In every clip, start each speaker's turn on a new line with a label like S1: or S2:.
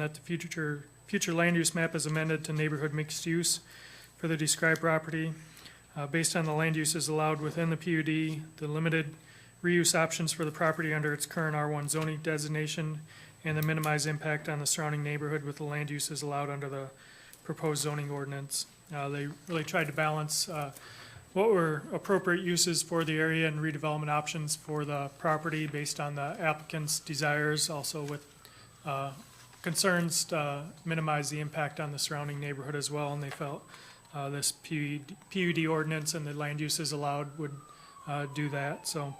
S1: that the future, future land use map is amended to neighborhood mixed use for the described property. Uh, based on the land uses allowed within the PUD, the limited reuse options for the property under its current R1 zoning designation, and the minimized impact on the surrounding neighborhood with the land uses allowed under the proposed zoning ordinance. Uh, they really tried to balance, uh, what were appropriate uses for the area and redevelopment options for the property based on the applicant's desires, also with uh, concerns to uh, minimize the impact on the surrounding neighborhood as well, and they felt uh, this PUD PUD ordinance and the land uses allowed would uh, do that. So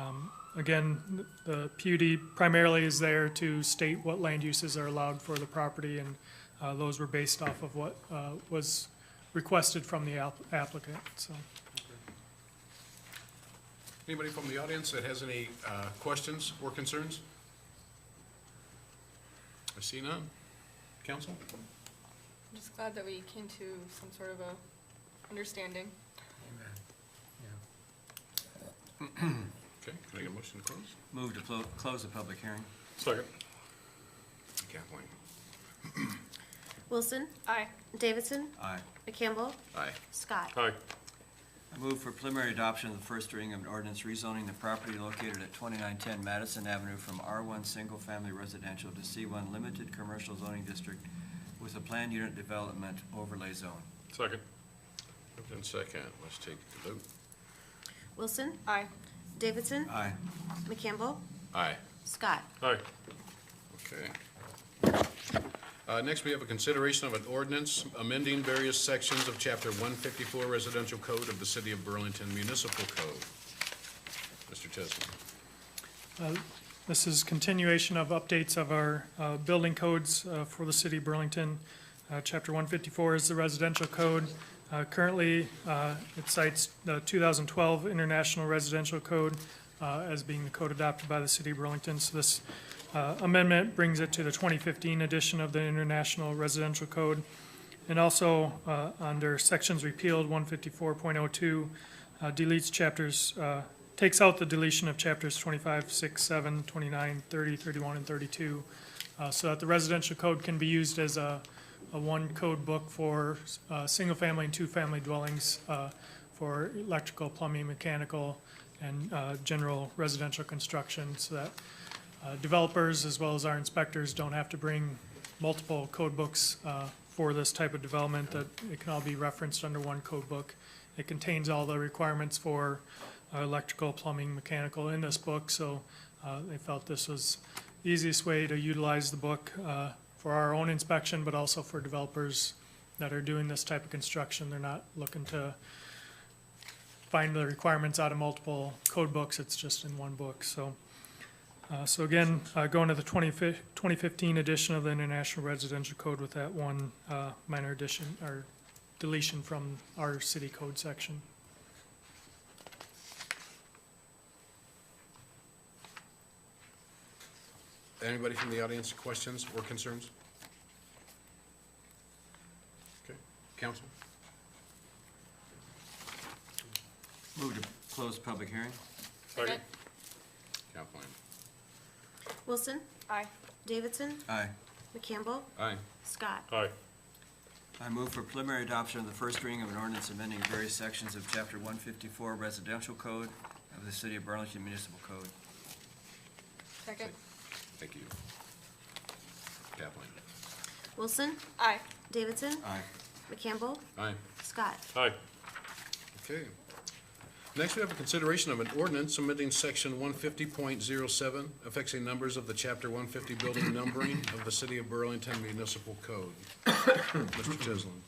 S1: um, again, the PUD primarily is there to state what land uses are allowed for the property, and uh, those were based off of what uh, was requested from the app- applicant, so.
S2: Anybody from the audience that has any uh, questions or concerns? I see none. Counsel?
S3: I'm just glad that we came to some sort of a understanding.
S2: Okay, can I get a motion to close?
S4: Move to clo- close the public hearing.
S2: Second. Kathleen?
S5: Wilson,
S3: Aye.
S5: Davidson,
S4: Aye.
S5: Campbell,
S2: Aye.
S5: Scott.
S2: Aye.
S4: I move for preliminary adoption of the first reading of an ordinance rezoning the property located at 2910 Madison Avenue from R1 Single Family Residential to C1 Limited Commercial Zoning District with a planned unit development overlay zone.
S2: Second. Moved in second, let's take the vote.
S5: Wilson,
S3: Aye.
S5: Davidson,
S4: Aye.
S5: McCampbell,
S2: Aye.
S5: Scott.
S2: Aye. Okay. Uh, Next, we have a consideration of an ordinance amending various sections of Chapter 154 Residential Code of the City of Burlington Municipal Code. Mr. Chesney?
S1: This is continuation of updates of our uh, building codes uh, for the city of Burlington. Uh, Chapter 154 is the residential code. Uh, Currently, uh, it cites the 2012 International Residential Code uh, as being the code adopted by the city of Burlington. So this uh, amendment brings it to the 2015 edition of the International Residential Code. And also, uh, under sections repealed, 154.02 uh, deletes chapters, uh, takes out the deletion of chapters 25, 6, 7, 29, 30, 31, and 32, uh, so that the residential code can be used as a, a one code book for uh, single-family and two-family dwellings uh, for electrical, plumbing, mechanical, and uh, general residential construction, so that uh, developers as well as our inspectors don't have to bring multiple code books uh, for this type of development, that it can all be referenced under one code book. It contains all the requirements for uh, electrical, plumbing, mechanical in this book, so uh, they felt this was the easiest way to utilize the book uh, for our own inspection, but also for developers that are doing this type of construction. They're not looking to find the requirements out of multiple code books, it's just in one book, so. Uh, So again, uh, going to the 20 fi- 2015 edition of the International Residential Code with that one uh, minor addition or deletion from our city code section.
S2: Anybody from the audience, questions or concerns? Okay, counsel?
S4: Move to close the public hearing.
S3: Second.
S2: Kathleen?
S5: Wilson,
S3: Aye.
S5: Davidson,
S4: Aye.
S5: McCampbell,
S2: Aye.
S5: Scott.
S2: Aye.
S4: I move for preliminary adoption of the first reading of an ordinance amending various sections of Chapter 154 Residential Code of the City of Burlington Municipal Code.
S3: Second.
S2: Thank you. Kathleen?
S5: Wilson,
S3: Aye.
S5: Davidson,
S4: Aye.
S5: McCampbell,
S2: Aye.
S5: Scott.
S2: Aye. Okay. Next, we have a consideration of an ordinance amending section one fifty point zero seven, affixing numbers of the chapter one fifty building numbering of the city of Burlington Municipal Code. Mr. Chislin.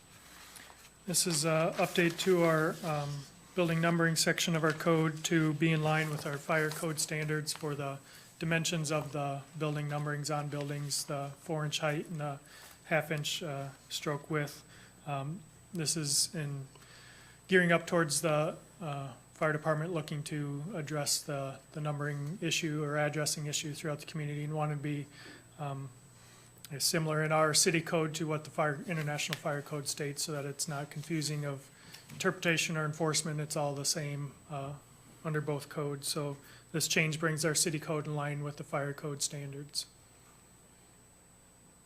S1: This is an update to our um, building numbering section of our code to be in line with our fire code standards for the dimensions of the building numberings on buildings, the four-inch height and the half-inch uh, stroke width. Um, This is in gearing up towards the uh, fire department looking to address the the numbering issue or addressing issue throughout the community and want to be is similar in our city code to what the fire, International Fire Code states, so that it's not confusing of interpretation or enforcement, it's all the same, uh, under both codes. So this change brings our city code in line with the fire code standards.